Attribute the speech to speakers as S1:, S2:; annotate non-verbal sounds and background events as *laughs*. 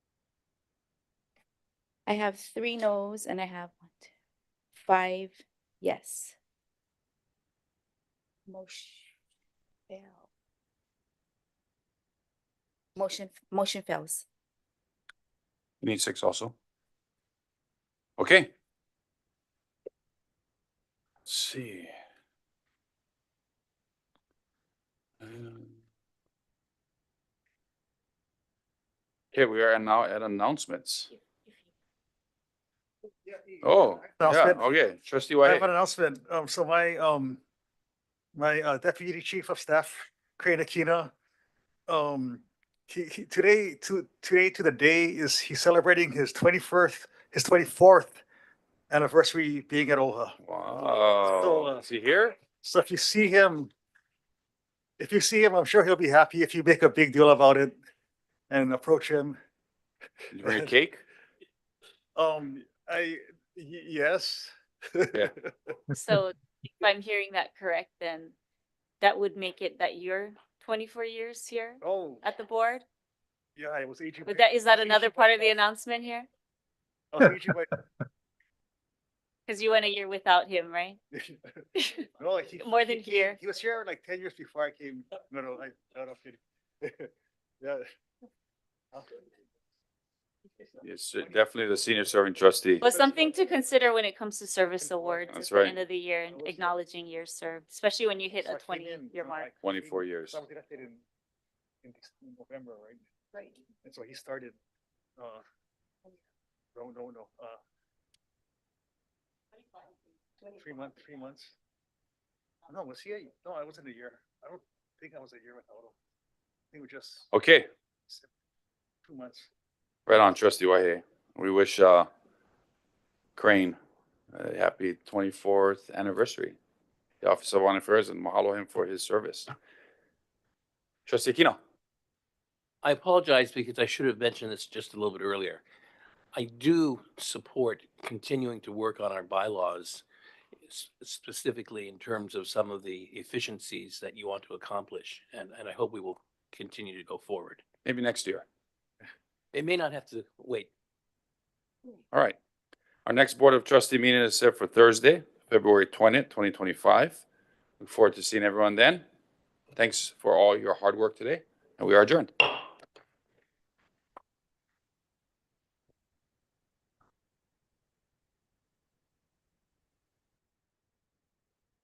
S1: I have three no's and I have one, two, five, yes. Motion fail. Motion, motion fails.
S2: You need six also? Okay. Let's see. Um, Okay, we are now at announcements. Oh, yeah,
S3: Announcement.
S2: okay, trustee
S3: I have an
S2: Whitehead.
S3: announcement. Um, so my, um, my uh, deputy chief of staff, Crane Aquina, um, he, he, today, to, today to the day is he's celebrating his twenty-first, his twenty-fourth anniversary being at OHA. So,
S2: Wow,
S3: uh,
S2: is he here?
S3: So if you see him, if you see him, I'm sure he'll be happy if you make a big deal about it and approach him.
S2: Did you bring a cake?
S3: Um, I, y- yes.
S4: So if I'm hearing that correct, then that would make it that you're twenty-four years here
S3: Oh,
S4: at the board?
S3: yeah, I was aging.
S4: Would
S3: my-
S4: that, is that
S3: I think
S4: another
S3: she-
S4: part of the announcement here?
S3: I was aging my-
S4: Cause you went a year without him, right?
S3: *laughs*
S4: *laughs*
S3: No, he.
S4: More
S3: he came-
S4: than here. Oh.
S3: He was here like ten years before I came. No, no, I, no, no, I'm kidding. *laughs* Yeah.
S4: *laughs*
S2: It's uh, definitely the senior serving trustee.
S4: But something to consider when it comes to service awards at
S2: That's
S4: the
S2: right.
S4: end of the year
S3: I
S4: and
S3: was-
S4: acknowledging years served, especially when you hit
S3: So I
S4: a
S3: came in,
S4: twenty-year
S3: no, I
S4: mark.
S3: came-
S2: 24 years.
S3: I was elected in, in this- in November, right?
S1: Right.
S3: And so he started, uh, no, no, no, uh, three month, three months. Oh, No, was he, a- no, I wasn't a year. I don't think I was a year without him. I think it was just
S2: Okay,
S3: two months.
S2: right on, trustee Whitehead. We wish, uh, Crane a happy twenty-fourth anniversary. The Office of One Affairs and mahalo him for his service. Trustee Aquino,
S5: I apologize because I should have mentioned this just a little bit earlier. I do support continuing to work on our bylaws s- specifically in terms of some of the efficiencies that you want to accomplish, and, and I hope we will continue to go forward.
S2: maybe next year.
S5: It may not have to wait
S2: All right. Our next Board of Trustee meeting is set for Thursday, February twentieth, twenty twenty-five. Look forward to seeing everyone then. Thanks for all your hard work today, and we are adjourned.